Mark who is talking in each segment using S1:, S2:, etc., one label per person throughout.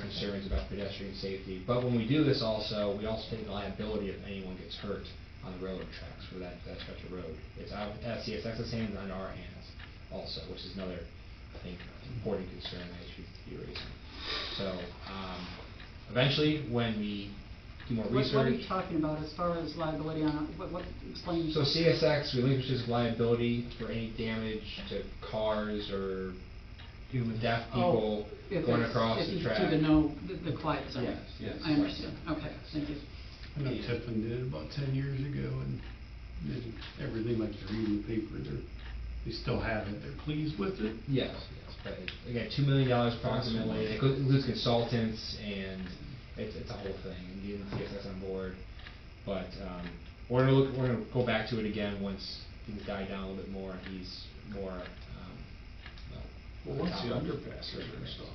S1: concerns about pedestrian safety. But when we do this also, we also take liability if anyone gets hurt on the railroad tracks for that, that stretch of road. It's out of SCSX's hands and under our hands also, which is another, I think, important concern that we should be raising. So, um, eventually, when we do more
S2: What-
S1: research.
S2: What are you talking about as far as liability on, what, what, explain?
S1: So CSX relinquishes liability for any damage to cars or human deaf people
S2: Oh, if
S1: going
S2: it's-
S1: across the track.
S2: If you do the no, the- the quiet zone.
S1: Yes, yes.
S2: I understand, okay, thank you.
S3: I know
S1: Yeah.
S3: Tiffin did it about ten years ago, and then everything like you read in the paper, they're, they still have it, they're pleased with it.
S1: Yes, yes, but it- again, two million dollars approximately, it goes- includes consultants and it's, it's a whole thing, and getting CSX on board. But, um, we're gonna look, we're gonna go back to it again once things die down a little bit more, and he's more, um, well.
S4: Well, once the
S1: on top of it.
S4: underpass is installed.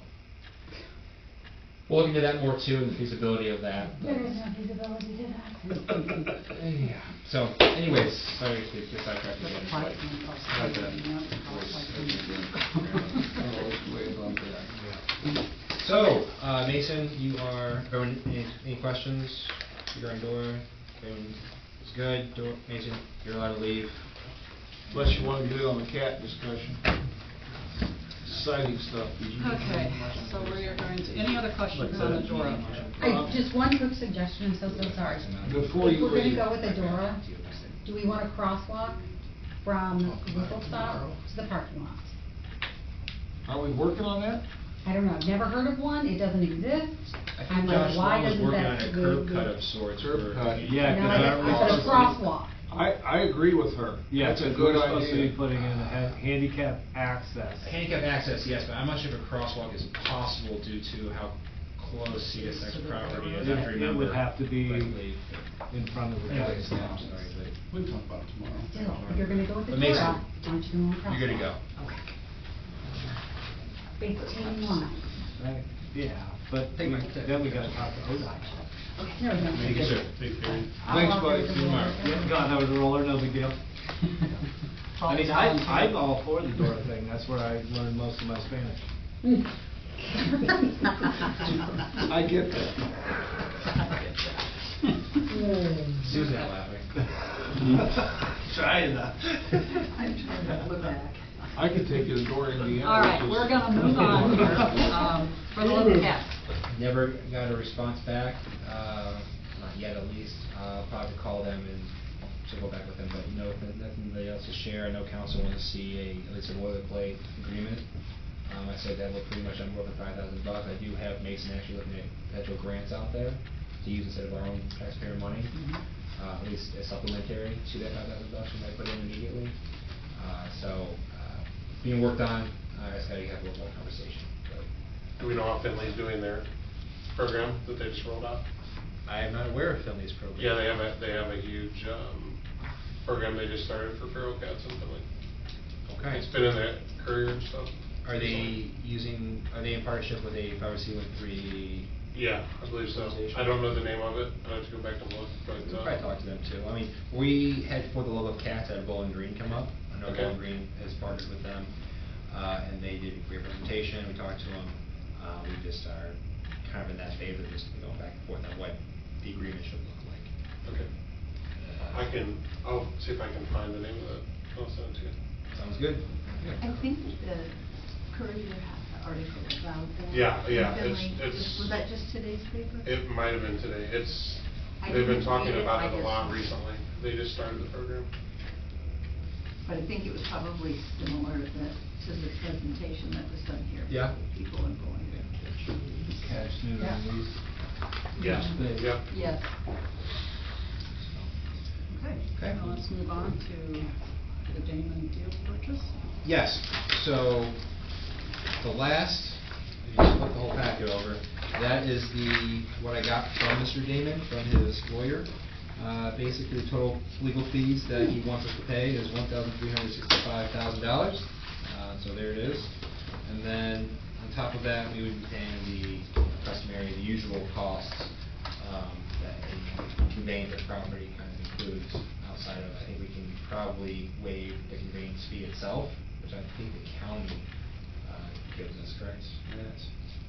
S1: We'll look into that more too, and the feasibility of that. but-
S5: There is no feasibility to that.
S1: Yeah. So anyways, sorry to get sidetracked
S2: But
S1: again.
S2: the
S1: but-
S2: quiet zone across the
S4: Not
S2: road,
S4: that
S2: yeah,
S4: voice
S2: across like
S4: that you
S2: the-
S4: Oh, way above that.
S1: So, uh, Mason, you are, everyone, any, any questions regarding Dora? Everyone is good, Dora, Mason, you're allowed to leave.
S4: Unless you wanna get in on the cat discussion. Exciting stuff. Did you-
S2: Okay, so we are going to, any other questions on the Dora?
S5: I- Just one quick suggestion, I'm so, so sorry.
S4: Um, Before you
S5: If we're gonna
S4: leave.
S5: go with Adora, do we want a crosswalk from the vehicle stop to the parking lot?
S4: Are we working on that?
S5: I don't know, I've never heard of one, it doesn't exist.
S1: I
S5: I'm
S1: think
S5: like,
S1: Josh
S5: why
S1: Long was
S5: doesn't
S1: working on
S5: that
S1: a
S5: good-
S1: curb cut
S5: good-
S1: of sorts
S4: Curb
S1: for.
S4: cut.
S6: Yeah,
S5: No,
S6: 'cause
S5: I-
S6: that
S5: I said a
S6: was-
S5: crosswalk.
S4: I, I agree with her.
S6: Yeah,
S4: That's a
S6: 'cause we're
S4: good
S6: supposed to
S4: idea.
S6: be putting in a ha- handicap access.
S1: Handicap access, yes, but I'm not sure if a crosswalk is possible due to how close CSX property is, I have to
S6: It- it would
S1: remember
S6: have to be-
S1: correctly.
S6: in front of the
S1: Yeah,
S6: building.
S1: it's now, sorry, but-
S3: We can talk about it tomorrow.
S5: Still, if you're gonna go with
S1: But Mason,
S5: Adora, aren't you going to crosswalk?
S1: You're gonna go.
S5: Fifteen miles.
S6: Right, yeah, but
S1: Take
S6: we-
S1: my tip.
S6: then we gotta talk to ODOT.
S5: There we go.
S1: Thank you, sir.
S3: Take care.
S5: I'll
S4: Thanks,
S5: walk
S4: buddy.
S5: over to
S4: See you
S5: the-
S4: tomorrow.
S6: Yeah, God, that was a roller, no big deal. I mean, I, I'm all for the door thing, that's where I learned most of my Spanish.
S4: I get that.
S1: Susan laughing.
S6: Trying to.
S2: Look back.
S4: I could take you to Dora, Indiana.
S2: All right, we're gonna move on here, um, for the little cat.
S1: Never got a response back, uh, not yet at least. Uh, probably call them and circle back with them, but no, nothing really else to share. I know council wants to see a, at least a boilerplate agreement. Um, I said that looked pretty much on more than five thousand bucks. I do have Mason actually looking at potential grants out there to use instead of our own taxpayer money. Uh, at least as supplementary to that five thousand bucks we might put in immediately. Uh, so, uh, being worked on, uh, I just gotta have a little more conversation, but
S7: Do we know how Finley's doing their program that they just rolled out?
S1: I am not aware of Finley's program.
S7: Yeah, they have a, they have a huge, um, program they just started for feral cats in Finley.
S1: Okay.
S7: It's been in the courier and stuff.
S1: Are they using, are they in partnership with a five oh C one three?
S7: Yeah, I believe so. I don't know the name of it. I'd have to go back and look,
S1: We'll
S7: but,
S1: probably
S7: uh,
S1: talk to them too. I mean, we had For the Love of Cats at Bowling Green come up. I know
S7: Okay.
S1: Bowling Green has partnered with them, uh, and they did a great presentation. We talked to them. Uh, we just are kind of in that phase of just going back and forth on what the agreement should look like.
S7: okay. I can, I'll see if I can find the name of it. I'll send it to you.
S1: Sounds good?
S8: I think that the Courier had an article about that.
S7: Yeah, yeah,
S8: Something
S7: it's-
S8: like-
S7: it's-
S8: Was that just today's paper?
S7: It might have been today. It's,
S8: I
S7: they've been
S8: didn't
S7: talking
S8: read it,
S7: about
S8: I
S7: it a lot
S8: just-
S7: recently. They just started the program.
S8: But I think it was probably similar to the, to the presentation that was done here.
S1: Yeah.
S8: People and going.
S6: Catch new
S8: Yeah.
S6: release.
S7: Yeah.
S6: They-
S7: Yeah.
S8: Yes.
S2: Okay,
S1: Okay.
S2: now let's move on to the Damon deal purchase.
S1: Yes, so the last, if you flip the whole packet over, that is the, what I got from Mr. Damon, from his lawyer. Uh, Basically, the total legal fees that he wants us to pay is one thousand three hundred sixty-five thousand dollars. Uh, So there it is. And then on top of that, we would be paying the customary, the usual costs um, that a conveyance of property kind of includes outside of, I think we can probably waive the conveyance fee itself, which I think the county uh, gives us, correct? Yes.